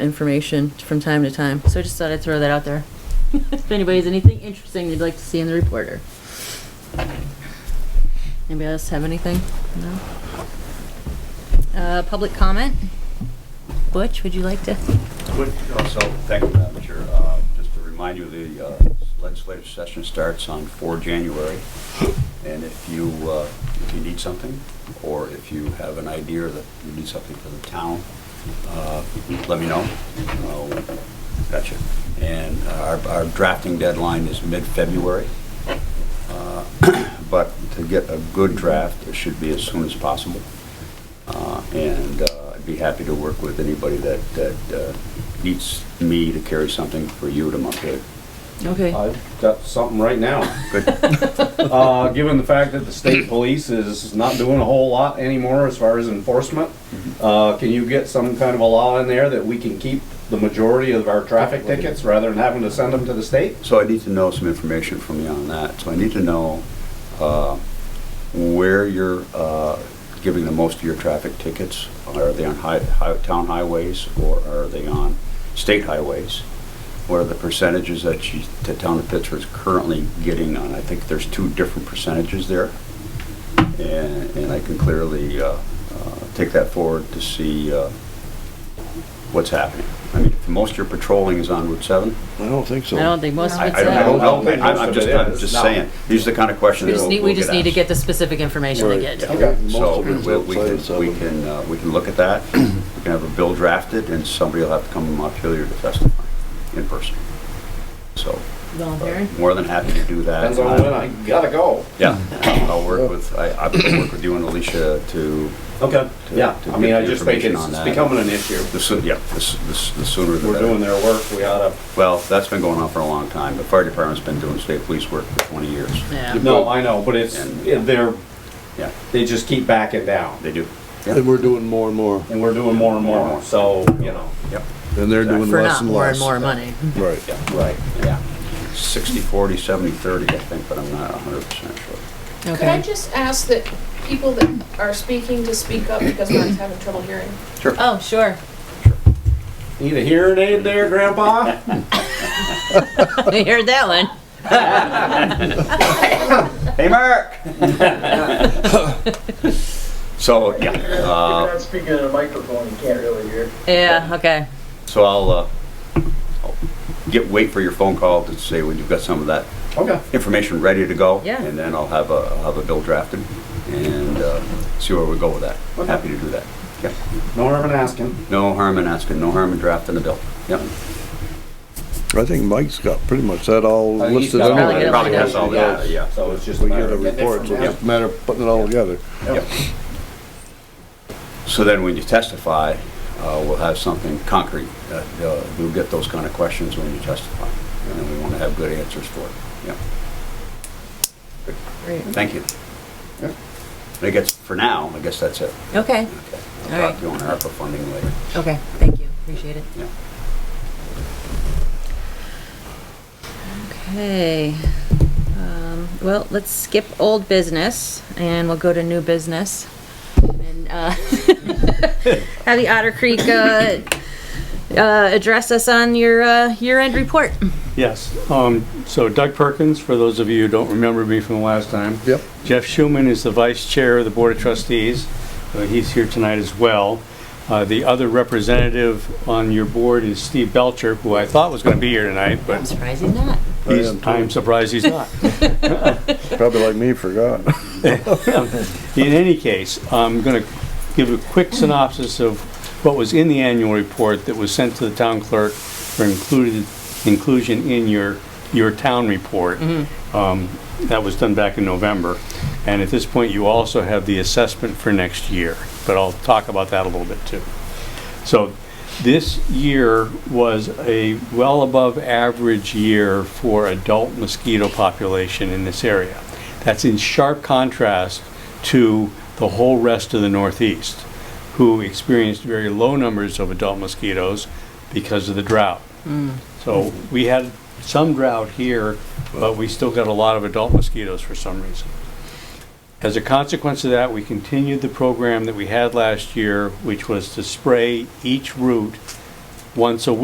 information from time to time. So I just thought I'd throw that out there. If anybody has anything interesting they'd like to see in the reporter. Anybody else have anything? No? Uh, public comment? Butch, would you like to? Would also, thank you, Madam Chair, Uh, just to remind you, the uh, legislative session starts on 4 January, and if you, uh, if you need something, or if you have an idea that you need something for the town, uh, let me know. Uh, Gotcha. And our our drafting deadline is mid-February, Uh, but to get a good draft, it should be as soon as possible. Uh, And uh, I'd be happy to work with anybody that, that uh, needs me to carry something for you to Montpelier. Okay. I've got something right now. Good, Uh, given the fact that the state police is not doing a whole lot anymore as far as enforcement, uh, can you get some kind of a law in there that we can keep the majority of our traffic tickets rather than having to send them to the state? so I need to know some information from you on that. So I need to know uh, where you're uh, giving the most of your traffic tickets. Are they on hi- hi- town highways or are they on state highways? What are the percentages that you, the town of Pittsburgh is currently getting on? I think there's two different percentages there. and, and I can clearly uh, uh, take that forward to see uh, what's happening. I mean, if most of your patrolling is on Route 7. I don't think I so. don't think most of I it's I don't I don't that. know, man. I'm I'm just, I'm just No. saying, these are the kind of questions. We just we'll- need, we we'll just need to asked. get the specific information they get. Right. Yeah. Okay. So Most we of it's we- we outside can, of we seven. can, uh, we can look at that, we can have a bill drafted, and somebody will have to come to Montpelier to testify in person. So, uh, Voluntary? more than happy to do that. Uh, Depends on when I gotta go. Yeah, I'll work with, I, I'll work with you and Alicia to Okay. Yeah, To- to I mean, get I the just think information it's on it's that. becoming an issue. The sooner, yeah, the s- the s- the sooner the We're better. doing their work, we oughta, Well, that's been going on for a long time. The fire department's been doing state police work for 20 years. Yeah. no, I know, but it's, And- they're, Yeah, they just keep backing down. they do. And we're doing more and more, And we're doing more and more, so, you know. Yep, and they're doing For less not and more and less. more money. Right. yeah. Right. Yeah. 60, 40, 70, 30, I think, but I'm not 100% sure. Could I Okay. just ask that people that are speaking to speak up because we're having trouble hearing? Oh, sure. Need a hearing aid there, Grandpa? You heard that one. Hey, Mark! So, yeah, If uh, you're not speaking in a microphone, you can't really hear. Yeah, okay. so I'll uh, I'll get, wait for your phone call to say when you've got some of that Okay. information ready to go. Yeah. And then I'll have a, I'll have a bill drafted and uh, see where we go with that. I'm happy to do that. Yeah. No harm in asking. No harm in asking, no harm in drafting a bill. Yep. I think Mike's got pretty much that all Uh, he's listed got all Probably out. get it Probably lined has all Yeah. that, yeah. So it's just a We matter get a of getting it report, so from it's him. just a matter of putting it all together. Yep. So then when you testify, uh, we'll have something concrete. that, uh, You'll get those kind of questions when you testify. And then we want to have good answers for it. Yeah. Great. Thank you. And I guess for now, I guess that's it. Okay, Okay. All I'll right. talk to you on ARPA funding later. okay, thank you, appreciate it. Yeah. Okay, um, well, let's skip old business and we'll go to new business. And, uh, have the Otter Creek, uh, uh, address us on your, uh, year-end report. Yes, um, so Doug Perkins, for those of you who don't remember me from the last time. Yep. Jeff Schuman is the vice chair of the Board of Trustees. Uh, He's here tonight as well. Uh, The other representative on your board is Steve Belcher, who I thought was going to be here tonight, I'm but surprised he's not. I he's- am too. I'm surprised he's not. Probably like me, forgot. In any case, I'm going to give a quick synopsis of what was in the annual report that was sent to the town clerk for included, inclusion in your, your town report. Um, That was done back in November. And at this point, you also have the assessment for next year, but I'll talk about that a little bit too. So this year was a well above average year for adult mosquito population in this area. That's in sharp contrast to the whole rest of the Northeast, who experienced very low numbers of adult mosquitoes because of the drought. So we had some drought here, but we still got a lot of adult mosquitoes for some reason. As a consequence of that, we continued the program that we had last year, which was to spray each root once a week.